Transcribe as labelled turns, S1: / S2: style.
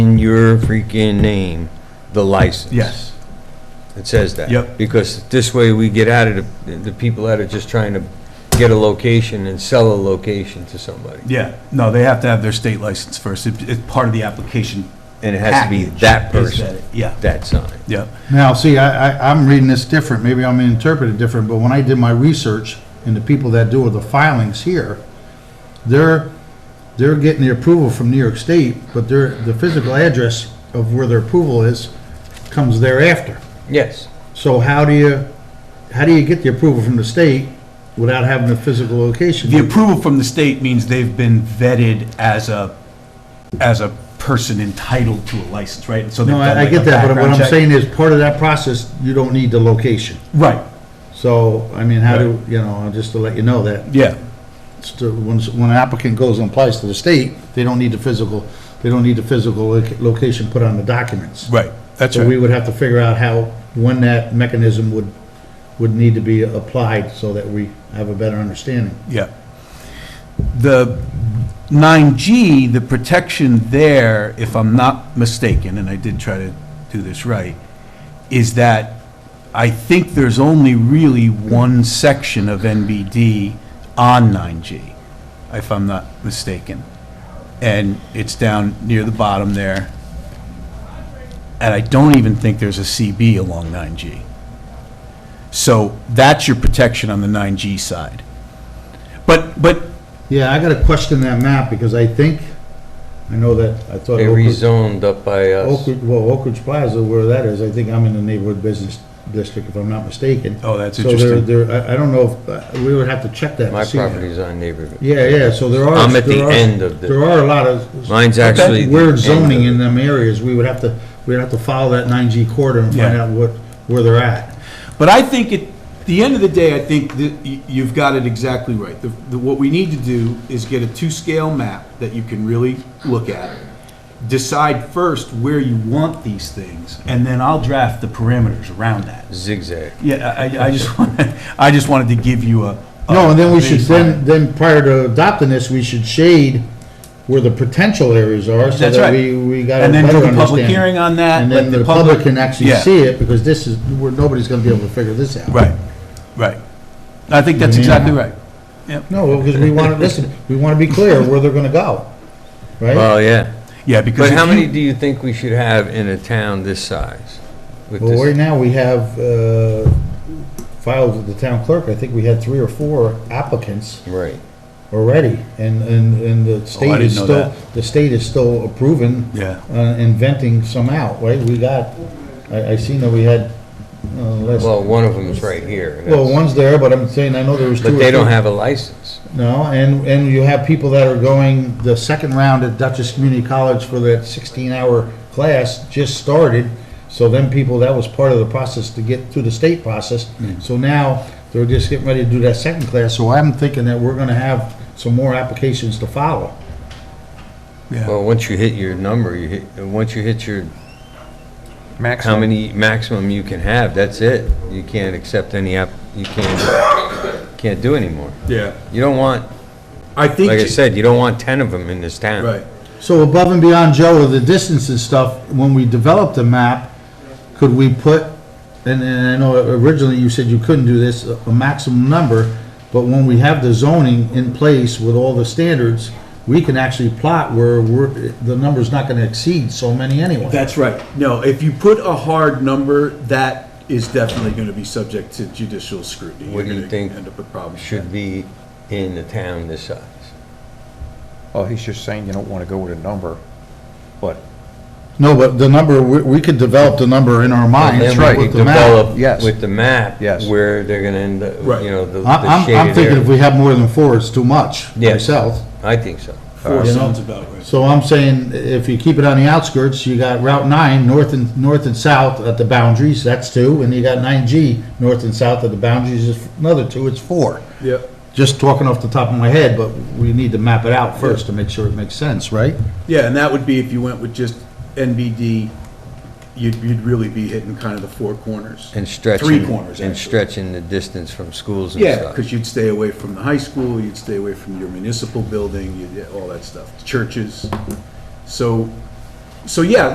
S1: in your freaking name the license.
S2: Yes,
S1: It says that.
S2: Yep.
S1: Because this way we get out of the, the people that are just trying to get a location and sell a location to somebody.
S2: yeah. No, they have to have their state license first. It- It's part of the application.
S1: And it has to be
S2: package
S1: that
S2: is
S1: person,
S2: that- Yeah,
S1: that sign.
S2: yeah.
S3: Now, see, I, I, I'm reading this different, maybe I'm interpreting it different, but when I did my research, and the people that do the filings here, they're, they're getting the approval from New York State, but their, the physical address of where their approval is comes thereafter.
S1: Yes.
S3: So how do you, how do you get the approval from the state without having a physical
S2: The
S3: location?
S2: approval from the state means they've been vetted as a, as a person entitled to a license, right? So they've
S3: No,
S2: done,
S3: I, I
S2: like, a
S3: get that, but what
S2: background
S3: I'm
S2: check.
S3: saying is, part of that process, you don't need the location.
S2: Right,
S3: So, I mean, how do, you know, just to let you know that
S2: yeah,
S3: It's to- When when an applicant goes and applies to the state, they don't need the physical, they don't need the physical loca- location put on the documents.
S2: right, that's
S3: So we
S2: right.
S3: would have to figure out how, when that mechanism would, would need to be applied so that we have a better understanding.
S2: Yeah. The 9G, the protection there, if I'm not mistaken, and I did try to do this right, is that I think there's only really one section of NBD on 9G, if I'm not mistaken. And it's down near the bottom there. And I don't even think there's a CB along 9G. So that's your protection on the 9G side. But, but
S3: Yeah, I gotta question that map because I think, I know that, I thought.
S1: They
S3: Oak Ridge-
S1: rezoned up by
S3: Oak
S1: us.
S3: Ridge- well, Oak Ridge Plaza, where that is, I think I'm in the neighborhood business district, if I'm not mistaken.
S2: Oh, that's
S3: So
S2: interesting.
S3: there, there, I, I don't know if, uh, we would have to check that. to
S1: My
S3: see that.
S1: property's on neighborhood.
S3: Yeah, yeah, so there are.
S1: I'm at the
S3: there are-
S1: end of the-
S3: There are a lot of.
S1: Mine's actually the
S3: Weird
S1: end
S3: zoning
S1: of
S3: in
S1: it.
S3: them areas, we would have to, we'd have to follow that nine G corridor and find
S2: Yeah.
S3: out what, where they're at.
S2: But I think at the end of the day, I think that y- you've got it exactly right. The- the- What we need to do is get a two-scale map that you can really look at. Decide first where you want these things, and then I'll draft the parameters around that.
S1: Zigzag.
S2: Yeah, I, I- I just, wanted- I just wanted to give you a. a
S3: No, and then we should,
S2: baseline.
S3: then, then prior to adopting this, we should shade where the potential areas are, so
S2: That's
S3: that
S2: right.
S3: we, we got a
S2: And then
S3: better
S2: do the public
S3: understanding.
S2: hearing on that.
S3: And
S2: let
S3: then the public can actually
S2: Yeah.
S3: see it, because this is, where nobody's gonna be able to figure this out.
S2: Right, right. I think that's
S3: Yeah.
S2: exactly right. Yep.
S3: No, because we wanna, listen, we wanna be clear where they're gonna go, right?
S1: Well, yeah.
S2: Yeah, because.
S1: But
S2: if
S1: how
S2: you-
S1: many do you think we should have in a town this size? With
S3: Well,
S1: this-
S3: right now, we have, uh, filed with the town clerk, I think we had three or four applicants
S1: Right.
S3: already, and, and, and
S1: Oh,
S3: the state
S2: didn't
S3: is
S2: know
S3: still,
S2: that.
S3: the state is still approving.
S2: Yeah.
S3: Uh, inventing some out, right, we got, I, I seen that we had, uh, less,
S1: Well, one of them's right here. and
S3: well,
S1: that's-
S3: one's there, but I'm saying, I know there was two or
S1: But they don't
S3: three.
S1: have a license.
S3: No, and, and you have people that are going, the second round at Dutchess Community College for that sixteen-hour class just started. So them people, that was part of the process to get through the state process. So now, they're just getting ready to do that second class, so I'm thinking that we're gonna have some more applications to follow.
S2: Yeah.
S1: Well, once you hit your number, you hit, and once you hit your, how many maximum you can have, that's it. You can't accept any app, you can't, can't do anymore.
S2: Yeah.
S1: You don't want,
S2: I think.
S1: like I said, you don't want ten of them in this town.
S2: Right.
S3: So above and beyond Joe with the distance and stuff, when we developed the map, could we put, and, and I know originally you said you couldn't do this, a a maximum number, but when we have the zoning in place with all the standards, we can actually plot where we're, the number's not gonna exceed so many anyway.
S2: That's right. No, if you put a hard number, that is definitely going to be subject to judicial scrutiny.
S1: What do you
S2: You're gonna
S1: think
S2: End up with problems.
S1: Should be in the town this size.
S4: Well, Oh, he's just saying you don't want to go with a number, but
S3: No, but the number, we, we could develop the number in our minds.
S1: Then we
S3: Ah, with
S1: could
S3: the map.
S1: develop
S4: yes.
S1: With the map.
S4: Yes.
S1: Where they're gonna end up,
S2: Right.
S1: you know, the the
S3: I- I'm, I'm
S1: shaded
S3: thinking if
S1: area.
S3: we have more than four, it's too much,
S1: Yes.
S3: myself.
S1: I think so.
S2: Four
S3: You know?
S2: sounds about right.
S3: So I'm saying, if you keep it on the outskirts, you got Route 9, north and, north and south at the boundaries, that's two, and you got 9G, north and south at the boundaries, is another two, it's four.
S2: Yep.
S3: Just talking off the top of my head, but we need to map it out first to make sure it makes sense, right?
S5: Yeah, and that would be if you went with just NBD, you'd, you'd really be hitting kind of the four corners.
S1: And stretching.
S5: Three corners,
S1: And
S5: actually.
S1: stretching the distance from schools and
S5: Yeah,
S1: stuff.
S5: because you'd stay away from the high school, you'd stay away from your municipal building, you'd, all that stuff, churches. So
S2: So yeah,